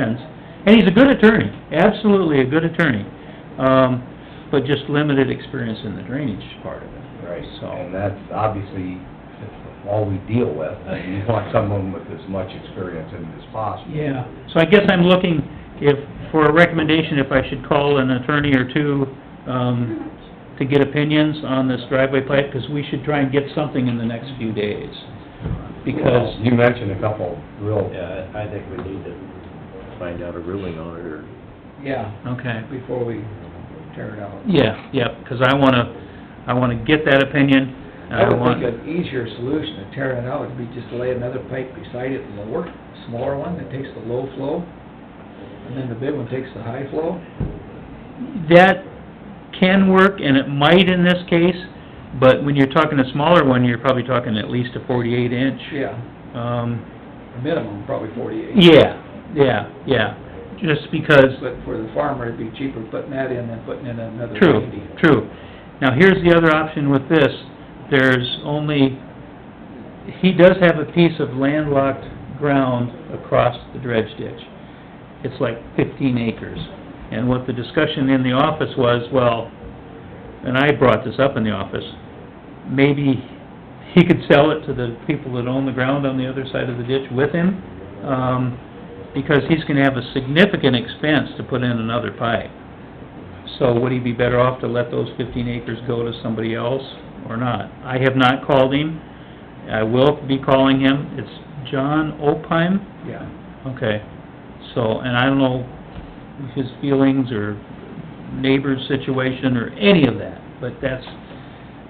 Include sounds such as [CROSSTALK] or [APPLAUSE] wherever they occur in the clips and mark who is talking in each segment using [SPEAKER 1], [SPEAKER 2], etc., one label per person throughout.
[SPEAKER 1] sense. And he's a good attorney, absolutely a good attorney, um, but just limited experience in the drainage part of it.
[SPEAKER 2] Right,
[SPEAKER 1] So-
[SPEAKER 2] and that's obviously all we deal with, and you want someone with as much experience in it as possible.
[SPEAKER 1] Yeah, so I guess I'm looking if, for a recommendation, if I should call an attorney or two, um, to get opinions on this driveway pipe, because we should try and get something in the next few days. Because,
[SPEAKER 2] You mentioned a couple real,
[SPEAKER 3] Yeah, I think we need to find out a ruling on it, or
[SPEAKER 4] Yeah,
[SPEAKER 1] okay,
[SPEAKER 4] before we tear it out.
[SPEAKER 1] yeah, yeah, because I wanna, I wanna get that opinion, and
[SPEAKER 4] I
[SPEAKER 1] I
[SPEAKER 4] would
[SPEAKER 1] want...
[SPEAKER 4] think an easier solution to tearing it out would be just to lay another pipe beside it, lower, smaller one that takes the low flow, and then the big one takes the high flow.
[SPEAKER 1] that can work, and it might in this case, but when you're talking a smaller one, you're probably talking at least a forty-eight inch.
[SPEAKER 4] Yeah,
[SPEAKER 1] Um,
[SPEAKER 4] a minimum, probably forty-eight.
[SPEAKER 1] yeah, yeah, yeah, just because,
[SPEAKER 4] But for the farmer, it'd be cheaper putting that in than putting in another
[SPEAKER 1] true,
[SPEAKER 4] ninety.
[SPEAKER 1] true. Now, here's the other option with this, there's only, he does have a piece of landlocked ground across the dredge ditch. It's like fifteen acres, and what the discussion in the office was, well, and I brought this up in the office, maybe he could sell it to the people that own the ground on the other side of the ditch with him, um, because he's gonna have a significant expense to put in another pipe. So would he be better off to let those fifteen acres go to somebody else or not? I have not called him. I will be calling him. It's John Opheim?
[SPEAKER 4] Yeah.
[SPEAKER 1] Okay, so, and I don't know his feelings or neighbor's situation or any of that, but that's,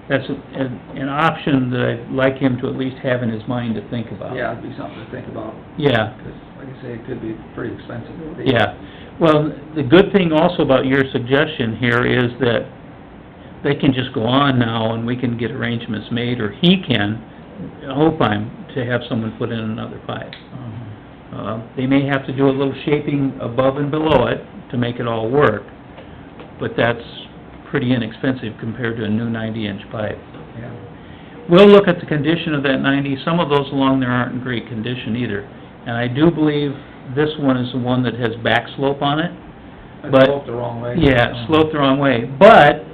[SPEAKER 1] that's an, an option that I'd like him to at least have in his mind to think about.
[SPEAKER 4] Yeah, it'd be something to think about,
[SPEAKER 1] Yeah,
[SPEAKER 4] 'cause like I say, it could be pretty expensive.
[SPEAKER 1] yeah. Well, the good thing also about your suggestion here is that they can just go on now and we can get arrangements made, or he can, Opheim, to have someone put in another pipe.
[SPEAKER 4] Mm-hmm,
[SPEAKER 1] Uh, They may have to do a little shaping above and below it to make it all work, but that's pretty inexpensive compared to a new ninety-inch pipe.
[SPEAKER 4] Yeah.
[SPEAKER 1] We'll look at the condition of that ninety, some of those along there aren't in great condition either. And I do believe this one is the one that has back slope on it. But-
[SPEAKER 4] It's sloped the wrong way. Mm-hmm.
[SPEAKER 1] Yeah, it sloped the wrong way, but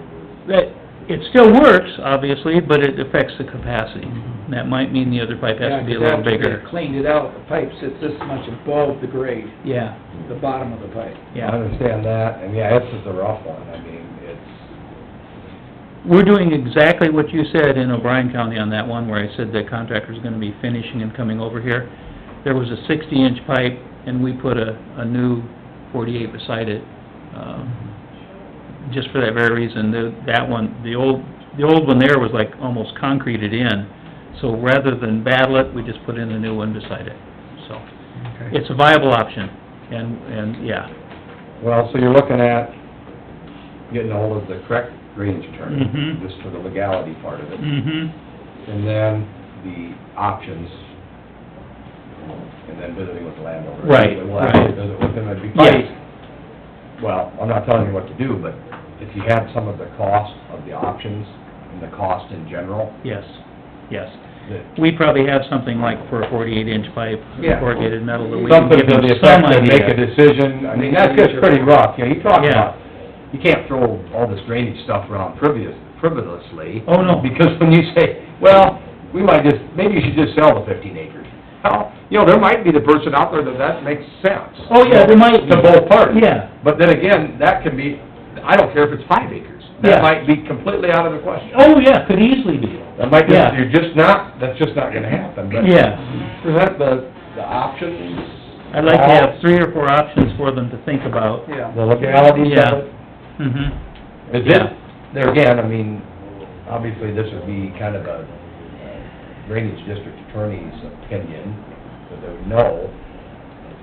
[SPEAKER 1] that, it still works, obviously, but it affects the capacity.
[SPEAKER 4] Mhm.
[SPEAKER 1] That might mean the other pipe has to be a little
[SPEAKER 4] Yeah, 'cause after
[SPEAKER 1] bigger.
[SPEAKER 4] they cleaned it out, the pipe sits this much above the grade,
[SPEAKER 1] Yeah,
[SPEAKER 4] the bottom of the pipe.
[SPEAKER 2] I
[SPEAKER 1] yeah.
[SPEAKER 2] understand that, and yeah, this is a rough one, I mean, it's,
[SPEAKER 1] We're doing exactly what you said in O'Brien County on that one, where I said the contractor's gonna be finishing and coming over here. There was a sixty-inch pipe, and we put a, a new forty-eight beside it, um, just for that very reason. The, that one, the old, the old one there was like almost concreted in, so rather than battle it, we just put in a new one beside it. So,
[SPEAKER 4] Okay.
[SPEAKER 1] it's a viable option, and, and, yeah.
[SPEAKER 2] well, so you're looking at getting ahold of the correct range attorney,
[SPEAKER 1] Mhm.
[SPEAKER 2] just for the legality part of it,
[SPEAKER 1] Mm-hmm,
[SPEAKER 2] and then the options, and then visiting with the landowner.
[SPEAKER 1] Right,
[SPEAKER 2] We'll have to
[SPEAKER 1] right.
[SPEAKER 2] visit with him, it'd be
[SPEAKER 1] Yes.
[SPEAKER 2] probably well, I'm not telling you what to do, but if you had some of the cost of the options and the cost in general,
[SPEAKER 1] yes, yes.
[SPEAKER 2] that
[SPEAKER 1] We probably have something like for a forty-eight inch pipe,
[SPEAKER 4] Yeah.
[SPEAKER 1] corrugated metal, that we can
[SPEAKER 2] something
[SPEAKER 1] give
[SPEAKER 2] to
[SPEAKER 1] them
[SPEAKER 2] the
[SPEAKER 1] some
[SPEAKER 2] effect of make a
[SPEAKER 1] idea.
[SPEAKER 2] decision, I mean, that's just pretty rough, you know, you talk about, you can't throw all this drainage stuff around frivolous, frivolously.
[SPEAKER 1] Oh, no.
[SPEAKER 2] Because when you say, well, we might just, maybe you should just sell the fifteen acres. Well, you know, there might be the person out there that that makes sense.
[SPEAKER 1] Oh, yeah, there might be.
[SPEAKER 2] To both parties.
[SPEAKER 1] Yeah.
[SPEAKER 2] But then again, that can be, I don't care if it's five acres, that
[SPEAKER 1] Yeah.
[SPEAKER 2] might be completely out of the question.
[SPEAKER 1] Oh, yeah, could easily be.
[SPEAKER 2] That might just,
[SPEAKER 1] Yeah.
[SPEAKER 2] you're just not, that's just not gonna happen, but.
[SPEAKER 1] Yeah,
[SPEAKER 2] Present the, the options.
[SPEAKER 1] I'd like to have three or four options for them to think about.
[SPEAKER 4] Yeah.
[SPEAKER 2] The legalities
[SPEAKER 1] Yeah.
[SPEAKER 2] of it.
[SPEAKER 1] Mm-hmm,
[SPEAKER 2] Is it, there again, I mean, obviously, this would be kind of a uh, drainage district attorney's opinion, so they would know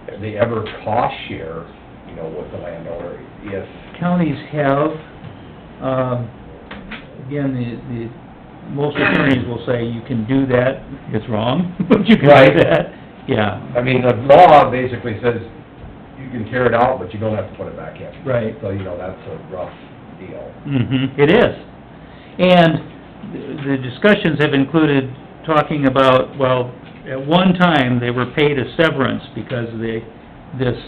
[SPEAKER 2] if they ever cost share, you know, with the landowner, if,
[SPEAKER 1] counties have, um, again, the, the, most attorneys will say you can do that, it's wrong, [LAUGHS] but you can
[SPEAKER 2] Right.
[SPEAKER 1] do that. Yeah,
[SPEAKER 2] I mean, the law basically says you can tear it out, but you don't have to put it back in.
[SPEAKER 1] Right.
[SPEAKER 2] So, you know, that's a rough deal.
[SPEAKER 1] Mm-hmm, it is. And the- the discussions have included talking about, well, at one time, they were paid a severance because they, this